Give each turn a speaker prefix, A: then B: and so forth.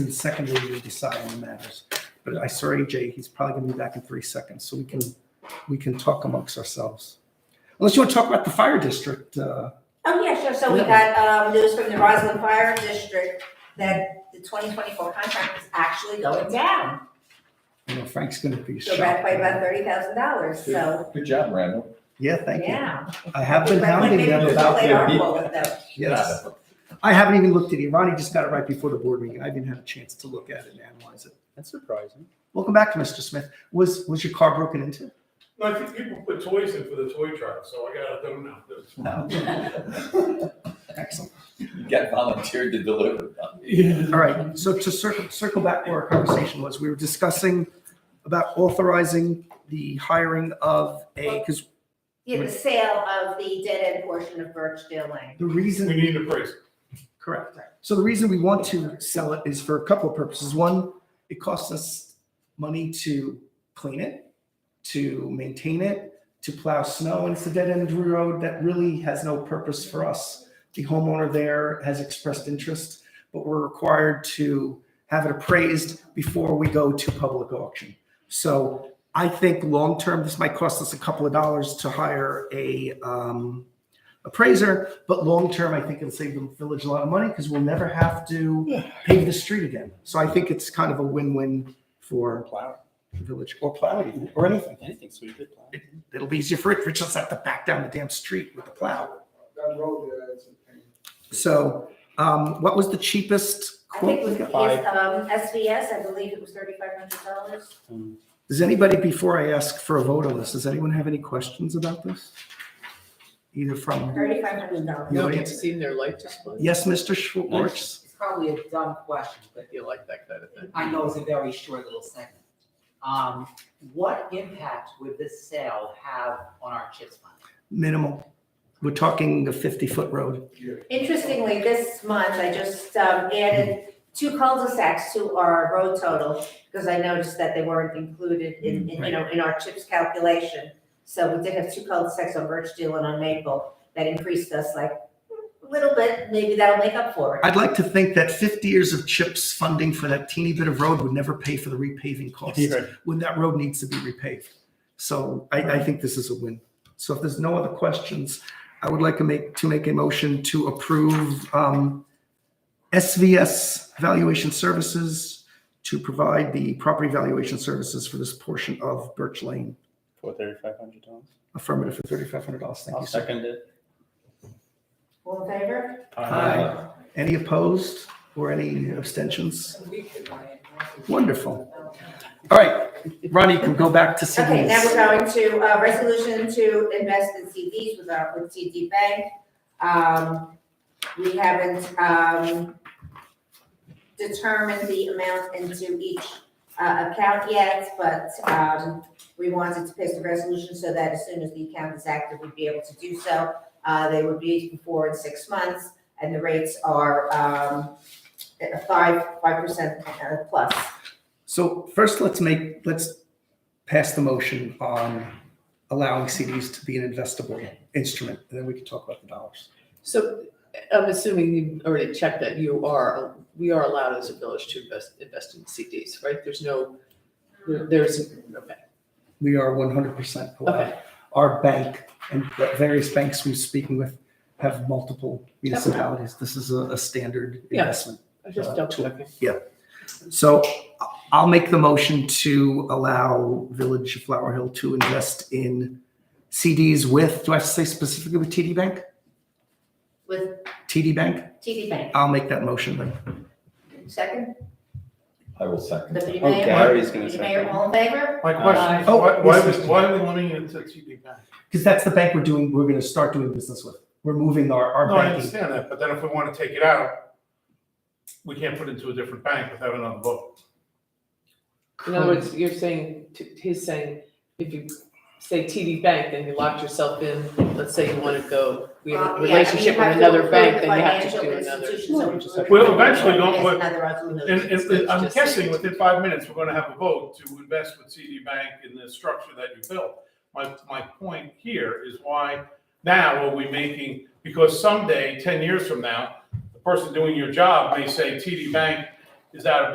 A: and secondly, we decide on the matters. But I saw AJ, he's probably gonna be back in three seconds, so we can, we can talk amongst ourselves. Unless you want to talk about the fire district, uh,
B: Oh, yeah, sure. So we got um, news from the Roslyn Fire District that the 2024 contract is actually going down.
A: you know, Frank's gonna be
B: So back
A: shocked.
B: by about $30,000. So,
C: Good job, Randall.
A: Yeah, thank you.
B: yeah.
A: I have been hounding them
B: Maybe
A: about,
B: we'll play
C: their
B: hardball with them.
A: yes. I haven't even looked at it. Ronnie just got it right before the board meeting. I didn't have a chance to look at it and analyze it.
D: That's surprising.
A: Welcome back, Mr. Smith. Was, was your car broken into?
E: No, I think people put toys in for the toy truck, so I got it done now.
A: No. Excellent.
C: You got volunteered to deliver.
A: All right, so to circle, circle back where our conversation was, we were discussing about authorizing the hiring of a, because
B: Yeah, the sale of the dead end portion of Birchdale Lane.
A: the
E: We
A: reason,
E: need a price.
A: correct. So the reason we want to sell it is for a couple of purposes. One, it costs us money to clean it, to maintain it, to plow snow, and it's a dead end road that really has no purpose for us. The homeowner there has expressed interest, but we're required to have it appraised before we go to public auction. So I think long-term, this might cost us a couple of dollars to hire a um, appraiser, but long-term, I think it'll save the village a lot of money because we'll never have to pave the street again. So I think it's kind of a win-win for
D: Plow,
A: the village or plow even, or anything.
D: anything sweet, good plow.
A: It'll be easier for it. Rich doesn't have to back down the damn street with the plow.
F: That road there is a pain.
A: So, um, what was the cheapest
B: I think
A: quote?
B: it was
A: we
B: his,
A: got?
D: Five.
B: um, SVS, I believe it was $3,500.
A: Does anybody, before I ask for a vote on this, does anyone have any questions about this? Either from,
B: $3,500.
A: No,
G: No,
A: it's-
G: you've seen their life display?
A: yes, Mr. Schwartz?
H: It's probably a dumb question, but
G: You like that kind of thing.
H: I know it's a very short little segment. Um, what impact would this sale have on our CHIPS fund?
A: Minimal. We're talking a fifty-foot road.
B: Interestingly, this month, I just um, added two cul-de-sacs to our road total because I noticed that they weren't included in, in, you know, in our CHIPS calculation. So we did have two cul-de-sacs on Birchdale and on Maple that increased us like a little bit, maybe that'll make up for it.
A: I'd like to think that fifty years of CHIPS funding for that teeny bit of road would never pay for the repaving costs. when that road needs to be repaved. So I, I think this is a win. So if there's no other questions, I would like to make, to make a motion to approve um, SVS Valuation Services to provide the property valuation services for this portion of Birch Lane.
D: For thirty-five hundred dollars.
A: Affirmative for thirty-five hundred dollars. Thank
D: I'll
A: you, sir.
D: second it.
B: All in favor?
A: Aye. Any opposed or any abstentions? Wonderful. All right, Ronnie, you can go back to CDs.
B: Okay, now we're going to, uh, resolution to invest in CDs with our, with TD Bank. Um, we haven't, um, determined the amount into each, uh, account yet, but, um, we wanted to pass the resolution so that as soon as the account is active, we'd be able to do so. Uh, they would be before in six months, and the rates are, um, five, five percent uh, plus.
A: So first, let's make, let's pass the motion on allowing CDs to be an investable instrument, and then we can talk about the dollars.
G: So I'm assuming you already checked that you are, we are allowed as a village to invest, invest in CDs, right? There's no, there- there's, okay,
A: We are one hundred percent allowed.
G: okay.
A: Our bank and the various banks we're speaking with have multiple municipalities. This is a, a standard
G: Yeah.
A: investment.
G: I was just double checking.
A: So I- I'll make the motion to allow Village of Flower Hill to invest in CDs with, do I have to say specifically with TD Bank?
B: With
A: TD Bank?
B: TD Bank,
A: I'll make that motion then.
B: second,
C: I will second.
B: Deputy
D: Oh,
B: Mayor?
D: Gary's gonna
B: Deputy Mayor,
D: second.
B: all in favor?
E: My
D: question,
A: Oh, why- why was-
E: why are we limiting it to TD Bank?
A: Because that's the bank we're doing, we're gonna start doing business with. We're moving our, our
E: No, I
A: banking.
E: understand that, but then if we want to take it out, we can't put it into a different bank without another vote.
G: In other words, you're saying, t- he's saying, if you say TD Bank, then you locked yourself in, let's say you want to go, we have
B: Well, Uh, yeah, I
G: a
B: mean,
G: relationship
B: you
G: with
B: have to
G: another
B: approve
G: bank,
B: the
G: then you have to
B: financial
G: do another.
B: institutions that
D: just
B: approve
E: Well,
B: it.
E: eventually, don't
B: Yes,
E: work-
B: another resolution.
E: And, and I'm
G: It's just-
E: guessing within five minutes, we're going to have a vote to invest with TD Bank in the structure that you built. My, my point here is why now are we making, because someday, ten years from now, the person doing your job may say TD Bank is out of